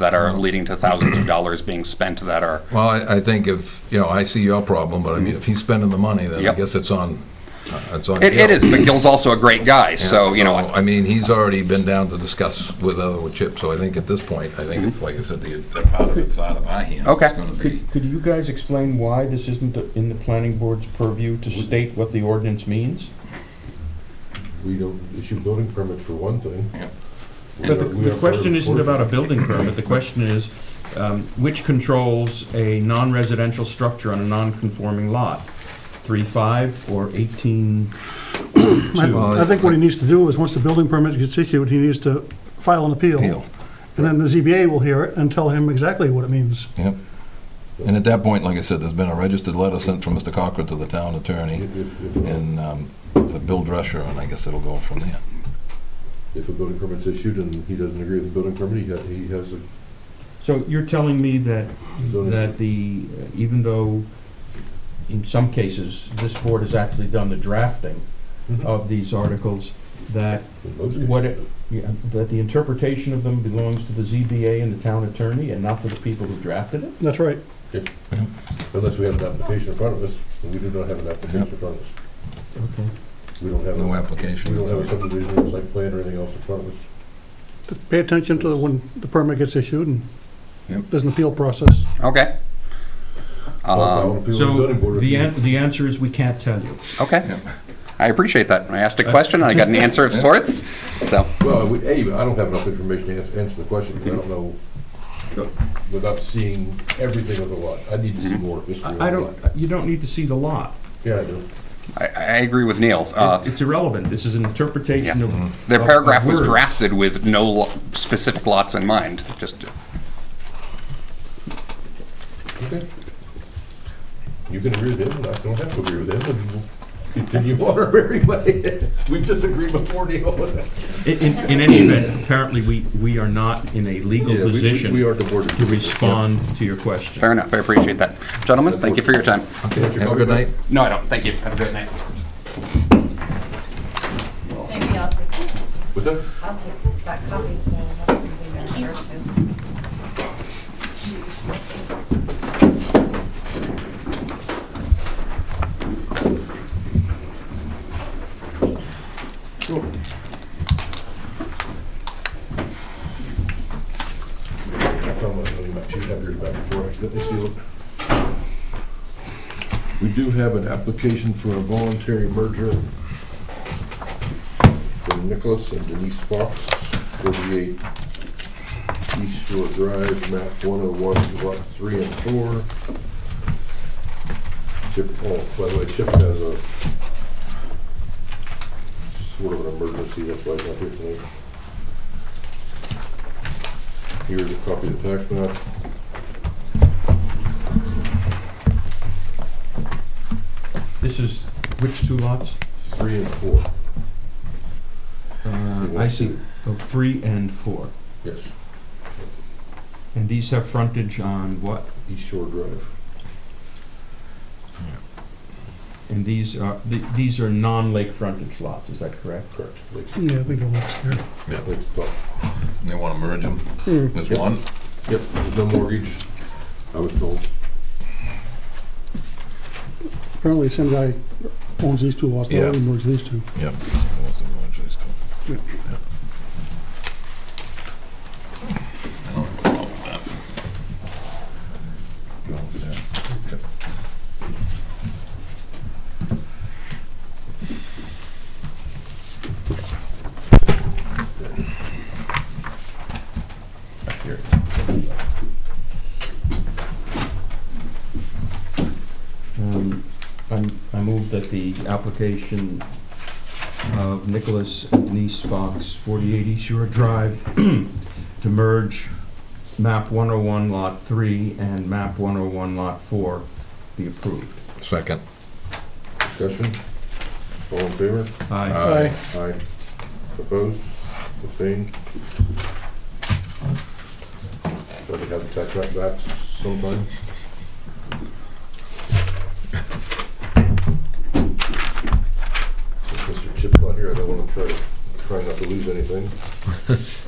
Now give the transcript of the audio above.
that are leading to thousands of dollars being spent that are, Well, I, I think if, you know, I see your problem, but I mean, if he's spending the money, then I Yep. guess it's on, uh, it's on. it, it Gil. is, but Gil's also a great guy, so, uh, you know, I- I mean, he's already been down to discuss with other Chip, so I think at this point, I think it's, like I said, the, the part of it's out of our hands. Okay. It's gonna be, Could you guys explain why this isn't in the planning board's purview to state what the ordinance means? We don't issue building permits for one thing. Yeah. We But the- are- we the are question part of isn't the- about a building permit, the question is, um, which controls a non-residential structure on a non-conforming lot? Three-five or eighteen-two? I I think what he needs to do is, once the building permit gets issued, he needs to file an appeal. Appeal. And then the ZBA will hear it and tell him exactly what it means. Yep. And at that point, like I said, there's been a registered letter sent from Mr. Cochran to the town attorney If, if, if, and, um, to Bill Drescher, and I guess it'll go from there. if a building permit's issued and he doesn't agree with the building permit, he, ha- he has a So you're telling me that, zoning. that the, uh, even though in some cases, this board has actually done the drafting Mhm. of these articles, that in most cases. What, it- yeah, that the interpretation of them belongs to the ZBA and the town attorney and not to the people who drafted it? That's right. Unless we have an application in front of us, and we do not have an application in front of us. Okay. We don't have, No a- we application. don't have a it's like- subdivision or site plan or anything else in front of us. Pay attention to when the permit gets issued and Yep. there's an appeal process. okay. Well, Um, if I want to appeal to the zoning board, if you- the answer is we can't tell you. Okay. I appreciate that. I asked a question and I got an answer of sorts, so, Well, we- A, I don't have enough information to ans- answer the question, 'cause I don't know, without seeing everything of the lot. I need to Mm-hmm. see more history of the I I lot. don't, you don't need to see the lot. Yeah, I do. I, I agree with Neil. Uh, It- It's irrelevant. This is an interpretation Yeah. of. Their of- paragraph of was words. drafted with no lo- specific lots in mind, just, Okay. You can agree with him, and I don't have to agree with him, and we'll continue on our merry way. We disagreed before, Neil. In, in in any event, apparently, we, we are not in a legal Yeah, we- we- position We are the board. of- to respond to your question. fair enough. I appreciate that. Gentlemen, thank you for your time. Okay, Have a good night. No, I don't. Thank you. Have a great night. Maybe I'll take, What's that? I'll take that copy, so I'll have to do that first. I found my zoning map. She'd have yours back before I let me steal it. We do have an application for a voluntary merger for Nicholas and Denise Fox, 38 East Shore Drive, map 101, lot 3 and 4. Chip, oh, by the way, Chip has a sort of an emergency, that's why he's not here tonight. Here's a copy of the tax map. This is, which two lots? Three and four, Uh, I see, Oh, three and four. yes, And these have frontage on what? East Shore Drive. And these are, th- these are non-lake frontage lots, is that correct? Correct. Lakes, Yeah, I think that works here. Lakes Top. They want to merge them. There's one. Yep, no mortgage, I was told. Apparently, the same guy owns these two lots, the other Yeah. one owns these two. Yep. He wants to merge these two. Um, I'm- I move that the application of Nicholas and Denise Fox, 48 East Shore Drive, to merge map 101 Lot 3 and map 101 Lot 4 be approved. Second. Discussion? All in favor? Aye. Aye. Aye. Opposed? Abstained? Probably have the tax map back sometime. Since Mr. Chip's not here, I don't wanna try to, try not to lose anything.